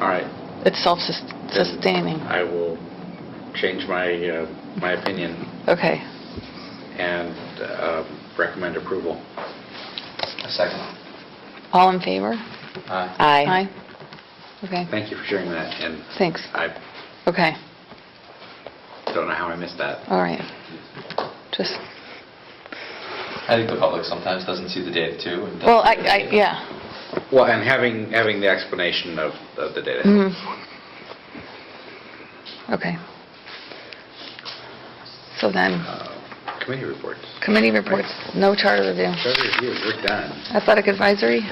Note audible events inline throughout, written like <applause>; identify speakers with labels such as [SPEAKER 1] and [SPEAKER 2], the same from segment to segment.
[SPEAKER 1] All right,
[SPEAKER 2] It's self-sustaining.
[SPEAKER 1] I will change my, uh, my opinion
[SPEAKER 2] Okay.
[SPEAKER 1] and uh, recommend approval.
[SPEAKER 3] A second.
[SPEAKER 2] All in favor?
[SPEAKER 3] Aye.
[SPEAKER 2] Aye. Okay,
[SPEAKER 1] Thank you for sharing that, and
[SPEAKER 2] thanks.
[SPEAKER 1] I
[SPEAKER 2] Okay,
[SPEAKER 1] don't know how I missed that.
[SPEAKER 2] all right. Just,
[SPEAKER 3] I think the public sometimes doesn't see the data too. and doesn't
[SPEAKER 2] well, I,
[SPEAKER 3] see the
[SPEAKER 2] I,
[SPEAKER 3] data.
[SPEAKER 2] yeah.
[SPEAKER 1] Well, and having, having the explanation of of the data.
[SPEAKER 2] Mhm. Okay. So then,
[SPEAKER 1] Uh, Committee reports.
[SPEAKER 2] committee reports, no charter review.
[SPEAKER 1] Charter review, we're done.
[SPEAKER 2] Athletic advisory?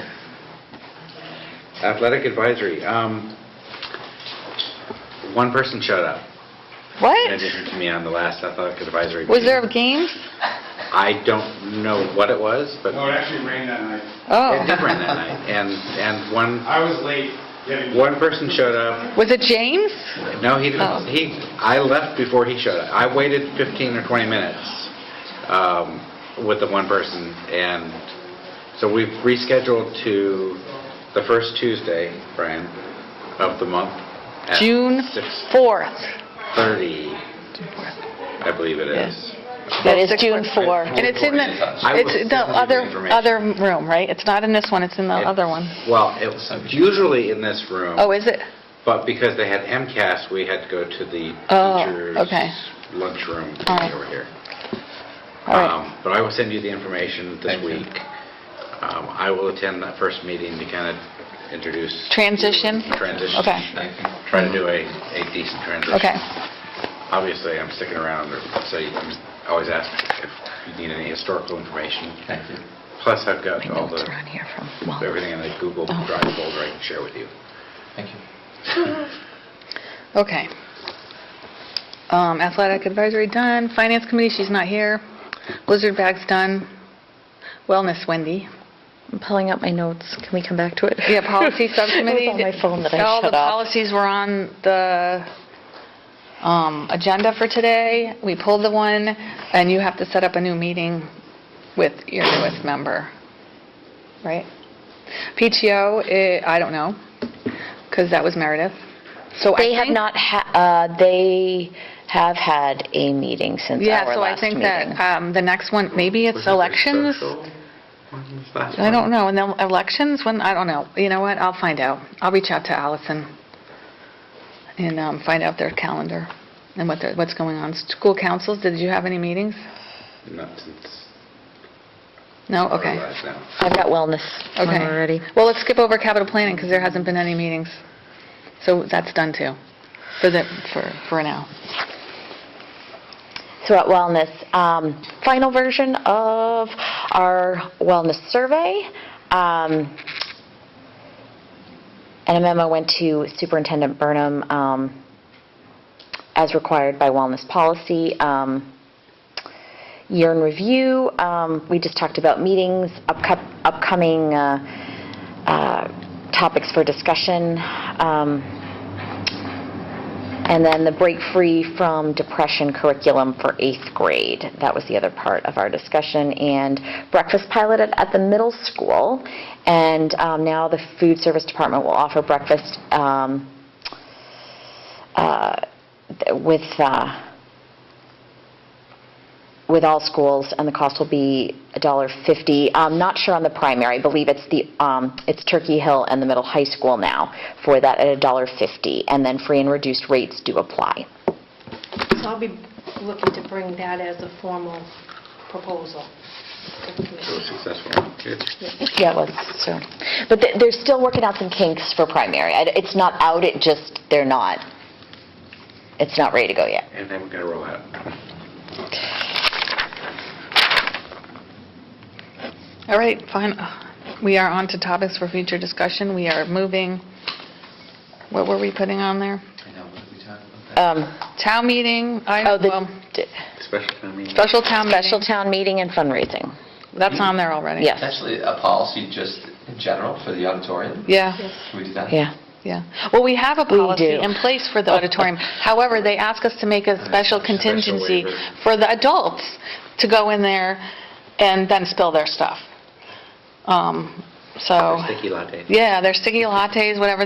[SPEAKER 1] Athletic advisory, um, one person showed up in
[SPEAKER 2] What?
[SPEAKER 1] addition to me on the last athletic advisory.
[SPEAKER 2] Was there a
[SPEAKER 1] meeting.
[SPEAKER 2] game?
[SPEAKER 1] I don't know what it was, but
[SPEAKER 4] No, it actually rained that night.
[SPEAKER 2] Oh.
[SPEAKER 1] it did rain that night, and, and one,
[SPEAKER 4] I was late getting.
[SPEAKER 1] one person showed up.
[SPEAKER 2] Was it James?
[SPEAKER 1] No, he
[SPEAKER 2] Oh.
[SPEAKER 1] didn't, he, I left before he showed up. I waited 15 or 20 minutes, um, with the one person, and so we've rescheduled to the first Tuesday, Brian, of the month. at
[SPEAKER 2] June
[SPEAKER 1] six
[SPEAKER 2] 4th.
[SPEAKER 1] 30,
[SPEAKER 2] June 4th.
[SPEAKER 1] I believe it is.
[SPEAKER 5] That is June 4.
[SPEAKER 2] And it's in the,
[SPEAKER 1] I will
[SPEAKER 2] it's the
[SPEAKER 1] send you the
[SPEAKER 2] other,
[SPEAKER 1] information.
[SPEAKER 2] other room, right? It's not in this one, it's in the other one.
[SPEAKER 1] Well, it was usually in this room,
[SPEAKER 2] Oh, is it?
[SPEAKER 1] but because they had MCAS, we had to go to the
[SPEAKER 2] Oh,
[SPEAKER 1] teachers'
[SPEAKER 2] okay.
[SPEAKER 1] lunchroom
[SPEAKER 2] All right.
[SPEAKER 1] over here.
[SPEAKER 2] All right.
[SPEAKER 1] Um, But I will send you the information this
[SPEAKER 3] Thank you.
[SPEAKER 1] week. Um, I will attend that first meeting to kind of introduce.
[SPEAKER 2] Transition?
[SPEAKER 1] Transition.
[SPEAKER 2] Okay.
[SPEAKER 3] Thank you.
[SPEAKER 1] Try to do a a decent transition.
[SPEAKER 2] Okay,
[SPEAKER 1] Obviously, I'm sticking around, so you- I'm always asked if you need any historical information.
[SPEAKER 3] Thank you.
[SPEAKER 1] Plus, I've got
[SPEAKER 2] my
[SPEAKER 1] all
[SPEAKER 2] notes
[SPEAKER 1] the
[SPEAKER 2] are on here from,
[SPEAKER 1] everything in the Google
[SPEAKER 2] Oh.
[SPEAKER 1] Drive folder I can share with you.
[SPEAKER 3] Thank you.
[SPEAKER 2] okay. Um, Athletic advisory done, finance committee, she's not here. Blizzard bag's done, wellness Wendy.
[SPEAKER 5] I'm pulling up my notes. Can we come back to it?
[SPEAKER 2] Yeah,
[SPEAKER 5] <laughs>
[SPEAKER 2] policy subcommittee.
[SPEAKER 5] It was on my phone that I
[SPEAKER 2] All the
[SPEAKER 5] shut off.
[SPEAKER 2] policies were on the um, agenda for today. We pulled the one, and you have to set up a new meeting with your newest member, right? PTO, eh, I don't know, because that was Meredith. So I
[SPEAKER 5] They have
[SPEAKER 2] think-
[SPEAKER 5] not, ha- uh, they have had a meeting since
[SPEAKER 2] Yeah,
[SPEAKER 5] our
[SPEAKER 2] so I
[SPEAKER 5] last
[SPEAKER 2] think
[SPEAKER 5] meeting.
[SPEAKER 2] that um, the next one, maybe
[SPEAKER 1] Was
[SPEAKER 2] it's
[SPEAKER 1] it the
[SPEAKER 2] elections?
[SPEAKER 1] social ones last
[SPEAKER 2] I
[SPEAKER 1] time?
[SPEAKER 2] don't know, and then elections, when, I don't know. You know what, I'll find out. I'll reach out to Allison and um, find out their calendar and what, they're- what's going on. School councils, did you have any meetings?
[SPEAKER 1] Not since.
[SPEAKER 2] No,
[SPEAKER 1] our
[SPEAKER 2] okay.
[SPEAKER 1] last now.
[SPEAKER 5] I've got wellness on
[SPEAKER 2] Okay.
[SPEAKER 5] already.
[SPEAKER 2] Well, let's skip over capital planning, because there hasn't been any meetings. So that's done too, for the, for, for now.
[SPEAKER 5] So at wellness, um, final version of our wellness survey. Um, And a memo went to Superintendent Burnham um, as required by wellness policy. Um, Year in review, um, we just talked about meetings, upco- upcoming uh, uh, topics for discussion. Um, and then the break free from depression curriculum for eighth grade. That was the other part of our discussion. And breakfast piloted at the middle school. And um, now the food service department will offer breakfast um, uh, th- with, uh, with all schools, and the cost will be $1.50. I'm not sure on the primary, I believe it's the, um, it's Turkey Hill and the middle high school now for that at $1.50, and then free and reduced rates do apply.
[SPEAKER 6] So I'll be looking to bring that as a formal proposal. to the
[SPEAKER 1] It was
[SPEAKER 6] commission.
[SPEAKER 1] successful. Good.
[SPEAKER 5] Yeah, it was, so, but they- they're still working out some kinks for primary. I- It's not out, it just, they're not, it's not ready to go yet.
[SPEAKER 1] And then we're going to roll out.
[SPEAKER 2] All right, fine. We are on to topics for future discussion. We are moving, what were we putting on there?
[SPEAKER 3] I know, what did we talk about?
[SPEAKER 5] Um,
[SPEAKER 2] Town meeting, I,
[SPEAKER 5] Oh,
[SPEAKER 2] well,
[SPEAKER 5] the d-
[SPEAKER 1] Special town meeting.
[SPEAKER 2] special town meeting.
[SPEAKER 5] special town meeting and fundraising,
[SPEAKER 2] That's on there already.
[SPEAKER 5] yes,
[SPEAKER 3] Actually, a policy just in general for the auditorium.
[SPEAKER 2] Yeah,
[SPEAKER 3] Should we do that?
[SPEAKER 5] yeah.
[SPEAKER 2] yeah. Well, we have a
[SPEAKER 5] We
[SPEAKER 2] policy
[SPEAKER 5] do.
[SPEAKER 2] in place for the
[SPEAKER 5] <laughs>
[SPEAKER 2] auditorium. However, they ask us to make a special contingency
[SPEAKER 1] waiver.
[SPEAKER 2] for the adults to go in there and then spill their stuff. Um, So,
[SPEAKER 1] Sticky latte.
[SPEAKER 2] yeah, their sticky lattes, whatever